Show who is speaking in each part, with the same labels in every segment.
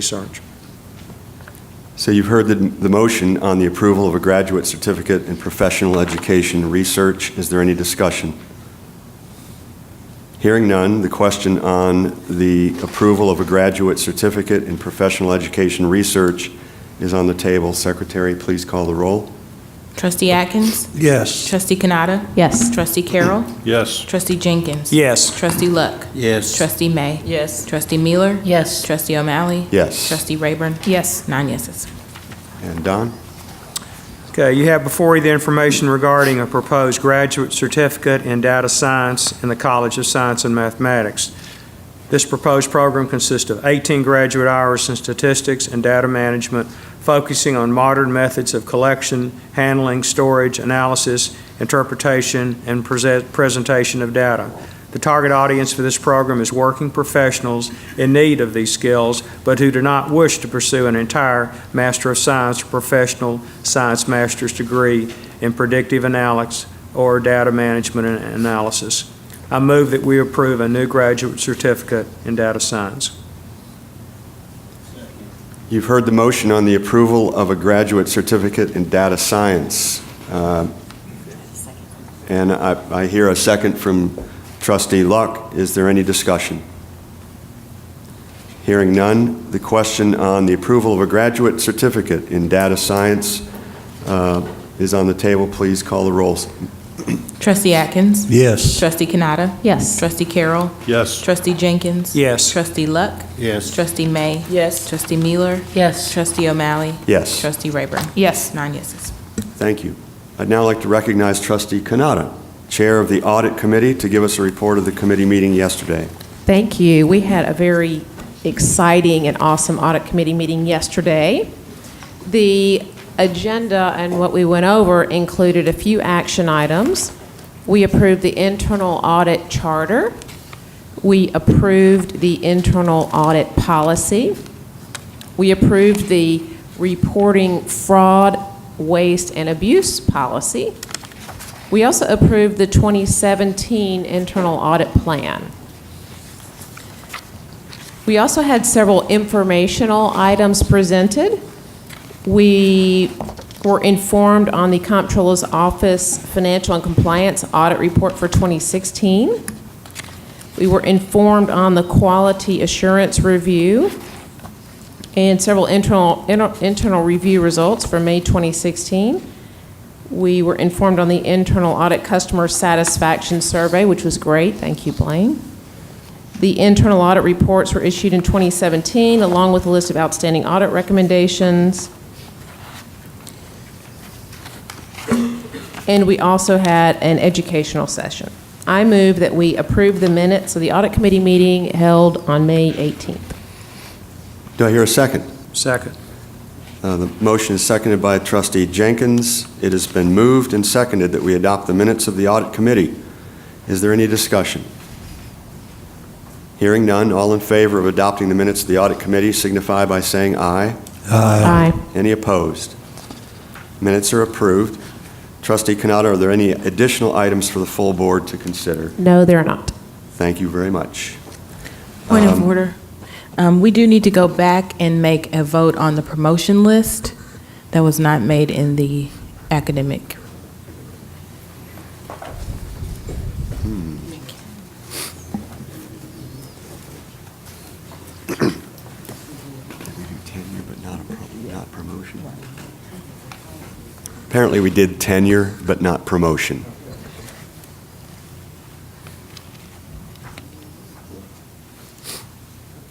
Speaker 1: research.
Speaker 2: So you've heard the, the motion on the approval of a graduate certificate in professional education research. Is there any discussion? Hearing none, the question on the approval of a graduate certificate in professional education research is on the table. Secretary, please call the roll.
Speaker 3: Trustee Atkins?
Speaker 1: Yes.
Speaker 3: Trustee Canada?
Speaker 4: Yes.
Speaker 3: Trustee Carroll?
Speaker 5: Yes.
Speaker 3: Trustee Jenkins?
Speaker 1: Yes.
Speaker 3: Trustee Luck?
Speaker 5: Yes.
Speaker 3: Trustee May?
Speaker 4: Yes.
Speaker 3: Trustee Miller?
Speaker 4: Yes.
Speaker 3: Trustee O'Malley?
Speaker 2: Yes.
Speaker 3: Trustee Rayburn?
Speaker 4: Yes.
Speaker 3: Nine yeses.
Speaker 2: And Don?
Speaker 1: Okay, you have before you the information regarding a proposed graduate certificate in data science in the College of Science and Mathematics. This proposed program consists of 18 graduate hours in statistics and data management, focusing on modern methods of collection, handling, storage, analysis, interpretation, and prese- presentation of data. The target audience for this program is working professionals in need of these skills, but who do not wish to pursue an entire Master of Science or Professional Science Master's degree in predictive analytics or data management and analysis. I move that we approve a new graduate certificate in data science.
Speaker 2: You've heard the motion on the approval of a graduate certificate in data science. Uh, And I I hear a second from trustee Luck. Is there any discussion? Hearing none, the question on the approval of a graduate certificate in data science uh, is on the table. Please call the rolls.
Speaker 3: Trustee Atkins?
Speaker 5: Yes.
Speaker 3: Trustee Canada?
Speaker 4: Yes.
Speaker 3: Trustee Carroll?
Speaker 5: Yes.
Speaker 3: Trustee Jenkins?
Speaker 1: Yes.
Speaker 3: Trustee Luck?
Speaker 5: Yes.
Speaker 3: Trustee May?
Speaker 4: Yes.
Speaker 3: Trustee Miller?
Speaker 4: Yes.
Speaker 3: Trustee O'Malley?
Speaker 2: Yes.
Speaker 3: Trustee Rayburn?
Speaker 4: Yes.
Speaker 3: Nine yeses.
Speaker 2: Thank you. I'd now like to recognize trustee Kanata, Chair of the Audit Committee, to give us a report of the committee meeting yesterday.
Speaker 4: Thank you. We had a very exciting and awesome audit committee meeting yesterday. The agenda and what we went over included a few action items. We approved the internal audit charter. We approved the internal audit policy. We approved the reporting fraud, waste, and abuse policy. We also approved the 2017 internal audit plan. We also had several informational items presented. We were informed on the Comptroller's Office Financial and Compliance Audit Report for 2016. We were informed on the Quality Assurance Review and several internal, inter- internal review results for May 2016. We were informed on the Internal Audit Customer Satisfaction Survey, which was great. Thank you, Blaine. The internal audit reports were issued in 2017, along with a list of outstanding audit recommendations. And we also had an educational session. I move that we approve the minutes of the audit committee meeting held on May 18th.
Speaker 2: Do I hear a second?
Speaker 1: Second.
Speaker 2: Uh, The motion is seconded by trustee Jenkins. It has been moved and seconded that we adopt the minutes of the audit committee. Is there any discussion? Hearing none, all in favor of adopting the minutes of the audit committee signify by saying aye.
Speaker 4: Aye.
Speaker 2: Any opposed? Minutes are approved. Trustee Canada, are there any additional items for the full board to consider?
Speaker 4: No, they're not.
Speaker 2: Thank you very much.
Speaker 3: Point of
Speaker 2: Um,
Speaker 3: order. Um, We do need to go back and make a vote on the promotion list that was not made in the academic.
Speaker 2: Apparently, we did tenure, but not promotion.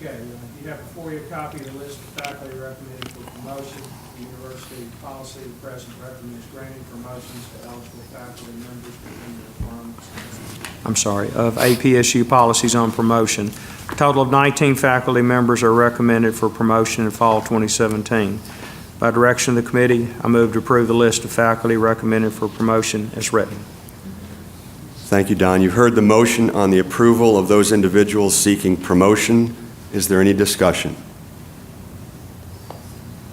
Speaker 1: Okay, you have before you a copy of the list of faculty recommended for promotion. The University policy president recommends granting promotions to eligible faculty members within the requirements. I'm sorry, of APSU policies on promotion. A total of 19 faculty members are recommended for promotion in fall 2017. By direction of the committee, I move to approve the list of faculty recommended for promotion as written.
Speaker 2: Thank you, Don. You've heard the motion on the approval of those individuals seeking promotion. Is there any discussion?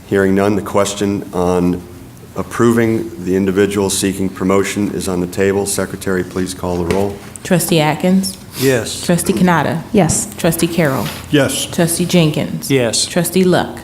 Speaker 2: Hearing none, the question on approving the individual seeking promotion is on the table. Secretary, please call the roll.
Speaker 3: Trustee Atkins.
Speaker 1: Yes.
Speaker 3: Trustee Canada.
Speaker 4: Yes.
Speaker 3: Trustee Carroll.
Speaker 5: Yes.
Speaker 3: Trustee Jenkins.
Speaker 1: Yes.
Speaker 3: Trustee Luck.